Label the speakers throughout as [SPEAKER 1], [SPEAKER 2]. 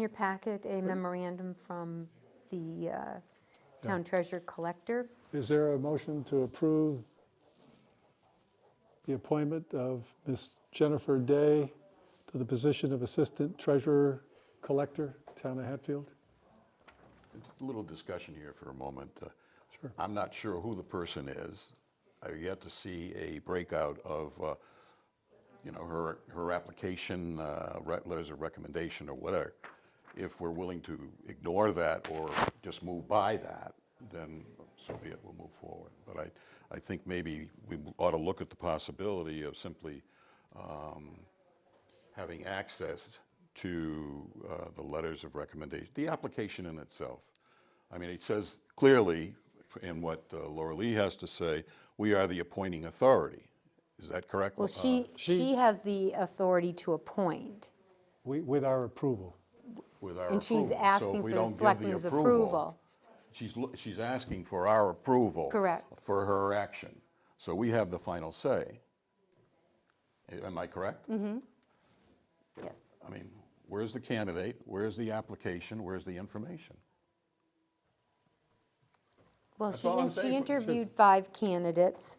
[SPEAKER 1] your packet a memorandum from the uh, town treasurer collector.
[SPEAKER 2] Is there a motion to approve the appointment of Ms. Jennifer Day to the position of Assistant Treasurer Collector, Town of Hatfield?
[SPEAKER 3] A little discussion here for a moment. Sure. I'm not sure who the person is. I've yet to see a breakout of, uh, you know, her, her application, uh, re- letters of recommendation or whatever. If we're willing to ignore that or just move by that, then so be it, we'll move forward. But I, I think maybe we ought to look at the possibility of simply um, having access to uh, the letters of recommendation, the application in itself. I mean, it says clearly in what uh, Laura Lee has to say, we are the appointing authority. Is that correct?
[SPEAKER 1] Well,
[SPEAKER 3] Uh,
[SPEAKER 1] she, she has the authority to appoint,
[SPEAKER 2] We- With our approval.
[SPEAKER 3] With our approval.
[SPEAKER 1] and she's
[SPEAKER 3] So if
[SPEAKER 1] asking
[SPEAKER 3] we
[SPEAKER 1] for
[SPEAKER 3] don't
[SPEAKER 1] the
[SPEAKER 3] give
[SPEAKER 1] selectmen's approval.
[SPEAKER 3] She's, lo- she's asking for our approval.
[SPEAKER 1] Correct.
[SPEAKER 3] For her action. So we have the final say. Am I correct?
[SPEAKER 1] Mm-hmm. Yes.
[SPEAKER 3] I mean, where's the candidate? Where's the application? Where's the information?
[SPEAKER 1] Well,
[SPEAKER 3] That's
[SPEAKER 1] she,
[SPEAKER 3] all I'm
[SPEAKER 1] and she
[SPEAKER 3] saying for-
[SPEAKER 1] interviewed five candidates.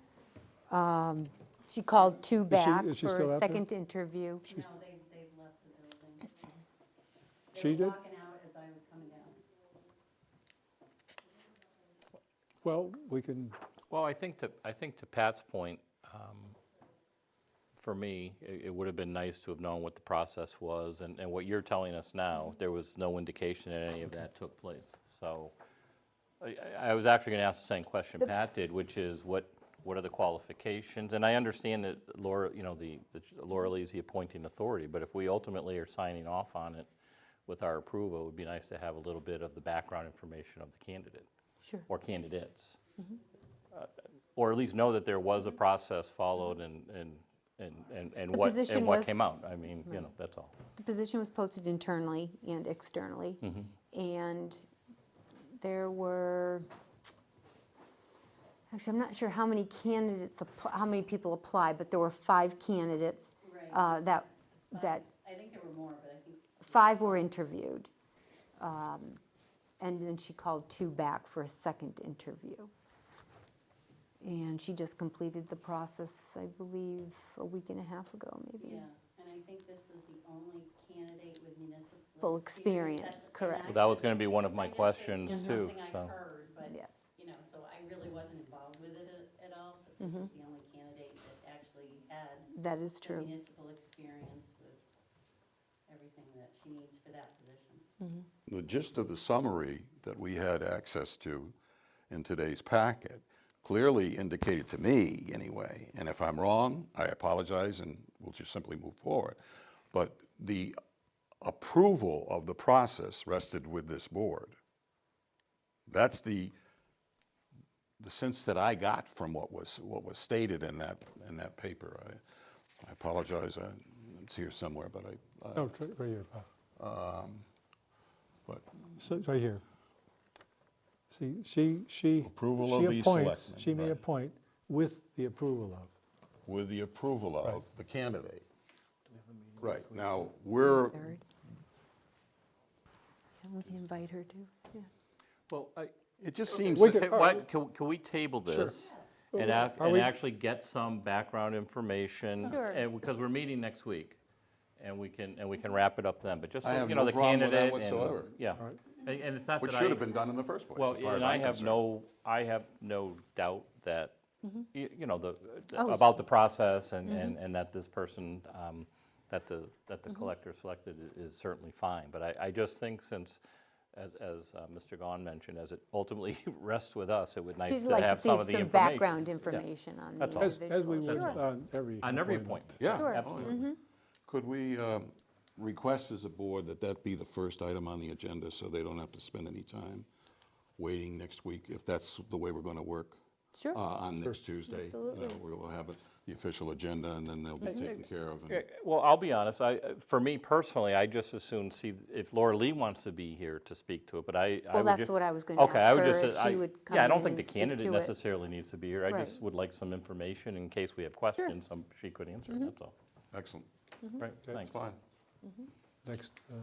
[SPEAKER 1] Um, She called two back
[SPEAKER 2] is she
[SPEAKER 1] for
[SPEAKER 2] still out
[SPEAKER 1] a
[SPEAKER 2] there?
[SPEAKER 1] second interview.
[SPEAKER 4] No, they, they've left the building.
[SPEAKER 2] She
[SPEAKER 4] They
[SPEAKER 2] did?
[SPEAKER 4] were walking out as I was coming down.
[SPEAKER 2] Well, we can,
[SPEAKER 5] Well, I think to, I think to Pat's point, um, for me, it, it would have been nice to have known what the process was, and, and what you're telling us now, there was no indication that any of that took place. So, I, I- I was actually gonna ask the same question Pat did, which is what, what are the qualifications? And I understand that Laura, you know, the, the- Laura Lee's the appointing authority, but if we ultimately are signing off on it with our approval, it would be nice to have a little bit of the background information of the candidate.
[SPEAKER 1] Sure.
[SPEAKER 5] Or candidates. Uh, Or at least know that there was a process followed and, and, and, and
[SPEAKER 1] Mm-hmm.
[SPEAKER 5] and
[SPEAKER 1] The
[SPEAKER 5] what,
[SPEAKER 1] position
[SPEAKER 5] and what
[SPEAKER 1] was-
[SPEAKER 5] came out. I mean, you know, that's all.
[SPEAKER 1] The position was posted internally and externally. And there were, actually, I'm not sure how many candidates, app- how many people applied, but there were five candidates
[SPEAKER 4] Right.
[SPEAKER 1] uh, that, that,
[SPEAKER 4] I think there were more, but I think
[SPEAKER 1] five were interviewed. Um, And then she called two back for a second interview. And she just completed the process, I believe, a week and a half ago, maybe.
[SPEAKER 4] Yeah, and I think this was the only candidate with municipal.
[SPEAKER 1] Full
[SPEAKER 4] That's-
[SPEAKER 1] experience,
[SPEAKER 4] and
[SPEAKER 1] correct.
[SPEAKER 4] I
[SPEAKER 5] That was
[SPEAKER 4] just-
[SPEAKER 5] gonna be one of
[SPEAKER 4] I
[SPEAKER 5] my
[SPEAKER 4] just- it's
[SPEAKER 5] questions
[SPEAKER 4] just
[SPEAKER 5] too,
[SPEAKER 4] Something I
[SPEAKER 5] so.
[SPEAKER 4] heard, but,
[SPEAKER 1] Yes.
[SPEAKER 4] you know, so I really wasn't involved with it a- at all. but This was the only candidate that actually had
[SPEAKER 1] That is
[SPEAKER 4] the
[SPEAKER 1] Mm-hmm. true.
[SPEAKER 4] municipal experience with everything that she needs for that position.
[SPEAKER 3] The gist of the summary that we had access to in today's packet clearly indicated to me, anyway, and if I'm wrong, I apologize and we'll just simply move forward. But the approval of the process rested with this board. That's the, the sense that I got from what was, what was stated in that, in that paper. I- I apologize, I- it's here somewhere, but I, I-
[SPEAKER 2] no, Oh, tr- right here, Bob.
[SPEAKER 3] but
[SPEAKER 2] So, right here. See, she, she.
[SPEAKER 3] Approval
[SPEAKER 2] she
[SPEAKER 3] of the
[SPEAKER 2] appoints-
[SPEAKER 3] selectmen,
[SPEAKER 2] She may
[SPEAKER 3] right.
[SPEAKER 2] appoint with the approval of.
[SPEAKER 3] with the approval of the candidate. Right, now, we're,
[SPEAKER 1] Third. Yeah, we can invite her to, yeah.
[SPEAKER 5] Well, I,
[SPEAKER 3] it just seems,
[SPEAKER 2] We
[SPEAKER 3] that-
[SPEAKER 2] could-
[SPEAKER 5] Hey, why- Can, can we table this?
[SPEAKER 3] Oh,
[SPEAKER 5] And, ac-
[SPEAKER 2] Are
[SPEAKER 5] and
[SPEAKER 2] we-
[SPEAKER 5] actually get some background information?
[SPEAKER 1] Sure.
[SPEAKER 5] And, because we're meeting next week, and we can, and we can wrap it up then, but just,
[SPEAKER 3] I
[SPEAKER 5] so-
[SPEAKER 3] have
[SPEAKER 5] you know,
[SPEAKER 3] no
[SPEAKER 5] the
[SPEAKER 3] problem
[SPEAKER 5] candidate.
[SPEAKER 3] with that
[SPEAKER 5] and-
[SPEAKER 3] whatsoever.
[SPEAKER 5] Yeah, and, and it's not that
[SPEAKER 3] which
[SPEAKER 5] I.
[SPEAKER 3] should have been done in the first place,
[SPEAKER 5] Well,
[SPEAKER 3] as far as
[SPEAKER 5] and
[SPEAKER 3] I'm
[SPEAKER 5] I have
[SPEAKER 3] concerned.
[SPEAKER 5] no, I have no doubt that, y- you know, the,
[SPEAKER 1] Mm-hmm. Oh, Mm-hmm.
[SPEAKER 5] about the process and, and and that this person, um, that the, that the collector selected i- is certainly fine. But I, I just think since, as, as uh, Mr. Gahn mentioned, as it ultimately rests with us, it would nice
[SPEAKER 1] You'd
[SPEAKER 5] to
[SPEAKER 1] like to
[SPEAKER 5] have
[SPEAKER 1] see
[SPEAKER 5] some of the
[SPEAKER 1] some
[SPEAKER 5] information.
[SPEAKER 1] background
[SPEAKER 5] Yeah.
[SPEAKER 1] information on the
[SPEAKER 5] That's all.
[SPEAKER 2] As,
[SPEAKER 1] individual.
[SPEAKER 2] as we would uh,
[SPEAKER 1] Sure.
[SPEAKER 2] on every.
[SPEAKER 5] On every appointment.
[SPEAKER 3] Yeah.
[SPEAKER 1] Sure. Mm-hmm.
[SPEAKER 3] absolutely. Could we um, request as a board that that be the first item on the agenda, so they don't have to spend any time waiting next week, if that's the way we're going to work?
[SPEAKER 1] Sure.
[SPEAKER 3] uh, On next Tuesday.
[SPEAKER 1] Absolutely.
[SPEAKER 3] Uh, We'll have it- the official agenda, and then they'll be taken care of. and-
[SPEAKER 5] Yeah, Uh, Well, I'll be honest, I, uh, for me personally, I just as soon see if Laura Lee wants to be here to speak to it, but I. I
[SPEAKER 1] Well,
[SPEAKER 5] would
[SPEAKER 1] that's
[SPEAKER 5] ju-
[SPEAKER 1] what I was gonna
[SPEAKER 5] Okay, I
[SPEAKER 1] ask
[SPEAKER 5] would
[SPEAKER 1] her,
[SPEAKER 5] just-
[SPEAKER 1] if she
[SPEAKER 5] I-
[SPEAKER 1] would come
[SPEAKER 5] Yeah, I don't
[SPEAKER 1] in
[SPEAKER 5] think the
[SPEAKER 1] and speak
[SPEAKER 5] candidate
[SPEAKER 1] to it.
[SPEAKER 5] necessarily needs to be here, I
[SPEAKER 1] Right.
[SPEAKER 5] just would like some information in case we have questions, some,
[SPEAKER 1] Mm-hmm.
[SPEAKER 5] she could answer, that's all.
[SPEAKER 3] Excellent,
[SPEAKER 5] Right, thanks.
[SPEAKER 3] fine.
[SPEAKER 2] Next, uh,